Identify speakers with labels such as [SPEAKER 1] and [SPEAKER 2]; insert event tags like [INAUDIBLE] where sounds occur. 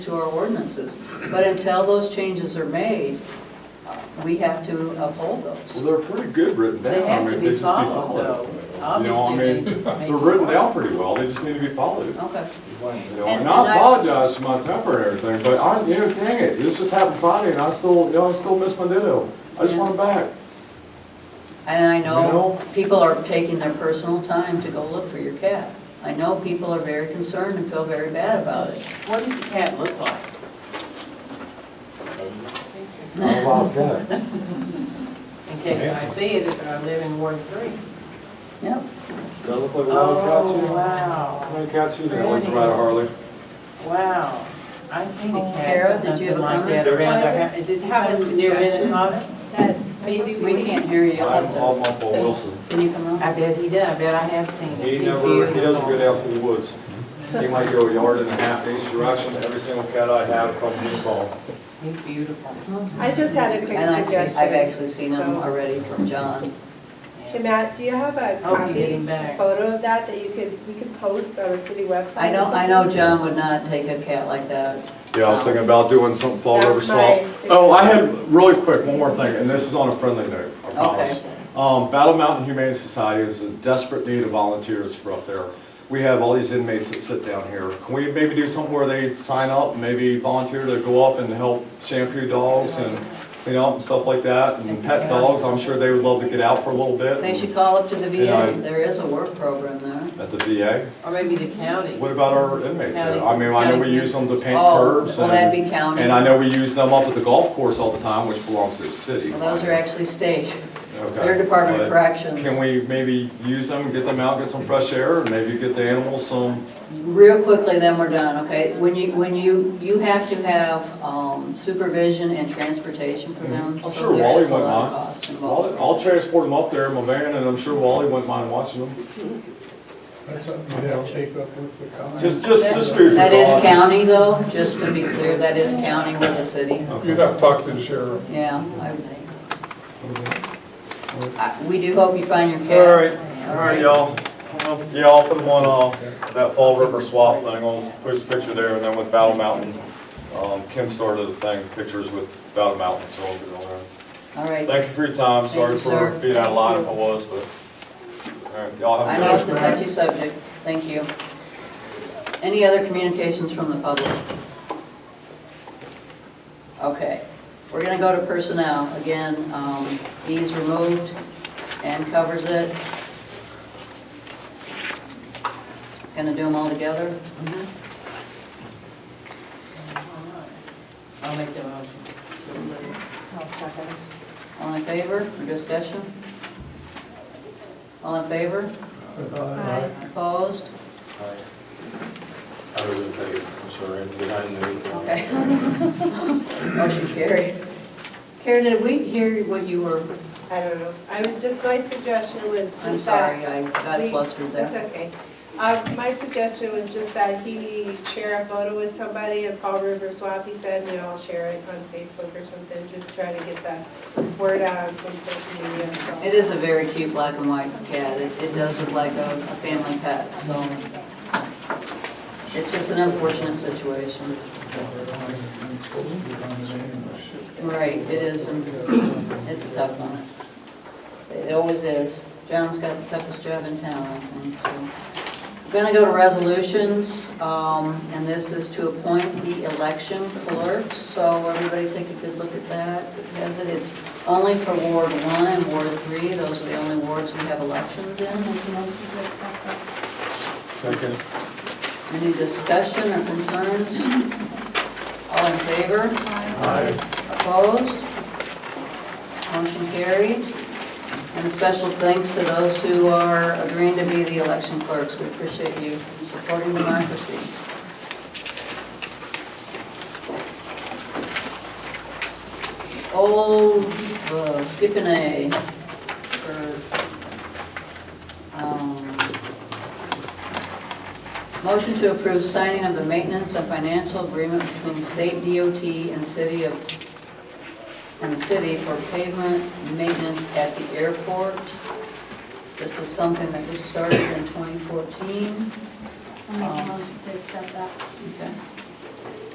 [SPEAKER 1] to our ordinances. But until those changes are made, uh, we have to uphold
[SPEAKER 2] Well,
[SPEAKER 1] those.
[SPEAKER 2] they're pretty good written down.
[SPEAKER 1] They
[SPEAKER 2] I
[SPEAKER 1] have
[SPEAKER 2] mean,
[SPEAKER 1] to
[SPEAKER 2] they
[SPEAKER 1] be
[SPEAKER 2] just
[SPEAKER 1] followed, though.
[SPEAKER 2] You know, I
[SPEAKER 1] Obviously,
[SPEAKER 2] mean,
[SPEAKER 1] they- they-
[SPEAKER 2] they're written down pretty well, they just need to be followed.
[SPEAKER 1] Okay.
[SPEAKER 2] You know,
[SPEAKER 1] And-
[SPEAKER 2] and I
[SPEAKER 1] and I-
[SPEAKER 2] apologize for my temper and everything, but I, you know, dang it, this just happened Friday and I still, you know, I still miss my ditto. I just
[SPEAKER 1] Yeah.
[SPEAKER 2] want
[SPEAKER 1] [LAUGHS]
[SPEAKER 2] it back.
[SPEAKER 1] And I
[SPEAKER 2] You
[SPEAKER 1] know
[SPEAKER 2] know?
[SPEAKER 1] people are taking their personal time to go look for your cat. I know people are very concerned and feel very bad about it. What does the cat look like?
[SPEAKER 2] Not a lot of that.
[SPEAKER 3] In case I see it, if I live in Ward Three.
[SPEAKER 1] Yeah,
[SPEAKER 2] Does that look like a
[SPEAKER 3] Oh, wow,
[SPEAKER 2] Wild cat you there? What's the matter, Harley?
[SPEAKER 3] wow. I seen a
[SPEAKER 1] Oh, Tara,
[SPEAKER 3] cat,
[SPEAKER 1] did you have
[SPEAKER 3] something
[SPEAKER 1] a
[SPEAKER 3] like that
[SPEAKER 1] comment?
[SPEAKER 3] around our house. It just happened near Vincent Hall.
[SPEAKER 4] that maybe we
[SPEAKER 1] we can't hear you. You'll
[SPEAKER 2] I'm
[SPEAKER 1] have
[SPEAKER 2] all
[SPEAKER 1] to-
[SPEAKER 2] up
[SPEAKER 1] [LAUGHS]
[SPEAKER 2] on Wilson.
[SPEAKER 1] Can you come
[SPEAKER 3] I
[SPEAKER 1] up?
[SPEAKER 3] bet he did, I bet I have seen it.
[SPEAKER 2] He
[SPEAKER 3] He's
[SPEAKER 2] never, he doesn't
[SPEAKER 3] beautiful.
[SPEAKER 2] get out to the woods. He might go a yard and a half each direction, every single cat I have comes in ball.
[SPEAKER 3] He's beautiful.
[SPEAKER 4] I just had a quick
[SPEAKER 1] And I've seen, I've
[SPEAKER 4] suggestion.
[SPEAKER 1] actually seen them already from John.
[SPEAKER 4] Hey, Matt, do you have a
[SPEAKER 3] Oh, you
[SPEAKER 4] copy,
[SPEAKER 3] getting back.
[SPEAKER 4] photo of that that you could, we could post on the city website?
[SPEAKER 1] I know,
[SPEAKER 4] or
[SPEAKER 1] I know
[SPEAKER 4] something?
[SPEAKER 1] John would not take a cat like that.
[SPEAKER 2] Yeah, I was thinking about doing something Fall
[SPEAKER 4] That's
[SPEAKER 2] River Swamp.
[SPEAKER 4] my-
[SPEAKER 2] Oh, I had, really quick, one more thing, and this is on a friendly note, I promise. Um, Battle Mountain Humane Society is in desperate need of volunteers for up there. We have all these inmates that sit down here. Can we maybe do something where they sign up, maybe volunteer to go up and help shampoo dogs and clean up and stuff like that? And pet dogs, I'm sure they would love to get out for a little bit.
[SPEAKER 1] They should call up to the VA,
[SPEAKER 2] Yeah.
[SPEAKER 1] there is a work program there.
[SPEAKER 2] At the VA.
[SPEAKER 3] Or maybe the county.
[SPEAKER 2] What about our inmates? there? I mean, I know we use them to paint
[SPEAKER 1] Oh,
[SPEAKER 2] curbs
[SPEAKER 1] well,
[SPEAKER 2] and.
[SPEAKER 1] that'd be county.
[SPEAKER 2] And I know we use them up at the golf course all the time, which belongs to the city.
[SPEAKER 1] Well, those are actually state,
[SPEAKER 2] Okay.
[SPEAKER 1] their Department of
[SPEAKER 2] But
[SPEAKER 1] Corrections.
[SPEAKER 2] Can we maybe use them, get them out, get some fresh air, and maybe get the animals some,
[SPEAKER 1] Real quickly, then we're done, okay? When you, when you, you have to have um, supervision and transportation for them.
[SPEAKER 2] I'm
[SPEAKER 1] so
[SPEAKER 2] Mm-hmm. sure
[SPEAKER 1] there
[SPEAKER 2] Wally
[SPEAKER 1] is a
[SPEAKER 2] wouldn't
[SPEAKER 1] lot of
[SPEAKER 2] mind.
[SPEAKER 1] cost
[SPEAKER 2] I'll
[SPEAKER 1] involved.
[SPEAKER 2] I'll transport them up there in my van, and I'm sure Wally wouldn't mind watching them.
[SPEAKER 5] That's something you'll take up with the county.
[SPEAKER 2] Just, just, just food for
[SPEAKER 1] That is
[SPEAKER 2] thought.
[SPEAKER 1] county though, just to be clear, that is county with the city.
[SPEAKER 5] You'd have to talk to the sheriff.
[SPEAKER 1] Yeah. I- I- We do hope you find your cat.
[SPEAKER 2] All right, all right, y'all. Well, Yeah, I'll put them on, uh, that Fall River Swap thing, I'll post a picture there, and then with Battle Mountain. Um, Kim started the thing, pictures with Battle Mountain, so I'll get it on there.
[SPEAKER 1] All right.
[SPEAKER 2] Thank you for your time, sorry
[SPEAKER 1] Thank you, sir.
[SPEAKER 2] for being out of line if I was, but, all right, y'all
[SPEAKER 1] I
[SPEAKER 2] have a
[SPEAKER 1] know
[SPEAKER 2] good
[SPEAKER 1] it's a touchy subject, thank you. Any other communications from the public? Okay, we're gonna go to personnel, again, um, E's removed and covers it. Gonna do them all together? Mm-hmm.
[SPEAKER 3] I'll make the motion.
[SPEAKER 1] All in favor, or discussion? All in favor?
[SPEAKER 4] Aye.
[SPEAKER 1] Opposed?
[SPEAKER 6] I was in favor, I'm sorry, I'm behind the meeting.
[SPEAKER 1] Okay. Motion carried. Karen, did we hear what you were,
[SPEAKER 4] I don't know. I was, just, my suggestion was just that.
[SPEAKER 1] I'm sorry, I got
[SPEAKER 4] we-
[SPEAKER 1] flustered
[SPEAKER 4] That's
[SPEAKER 1] there.
[SPEAKER 4] okay. Uh, my suggestion was just that he share a photo with somebody of Fall River Swap, he said, and I'll share it on Facebook or something, just try to get the word out on some social media. so.
[SPEAKER 1] It is a very cute black and white cat. It, it does look like a, a family pet, so. It's just an unfortunate situation. Right, it is, um, it's a tough one. It always is. John's got the toughest job in town, I think, so. We're gonna go to resolutions, um, and this is to appoint the election clerk, so everybody take a good look at that. It has it, it's only for Ward one and Ward three, those are the only wards we have elections in.
[SPEAKER 2] Second.
[SPEAKER 1] Any discussion or concerns? All in favor? Opposed? Motion carried. And special thanks to those who are agreeing to be the election clerks. We appreciate you supporting democracy. Old, uh, skipping A for, um, motion to approve signing of the maintenance and financial agreement between state DOT and city of and the city for pavement maintenance at the airport. This is something that was started in 2014.
[SPEAKER 7] I'll make a motion to accept that.
[SPEAKER 1] Okay.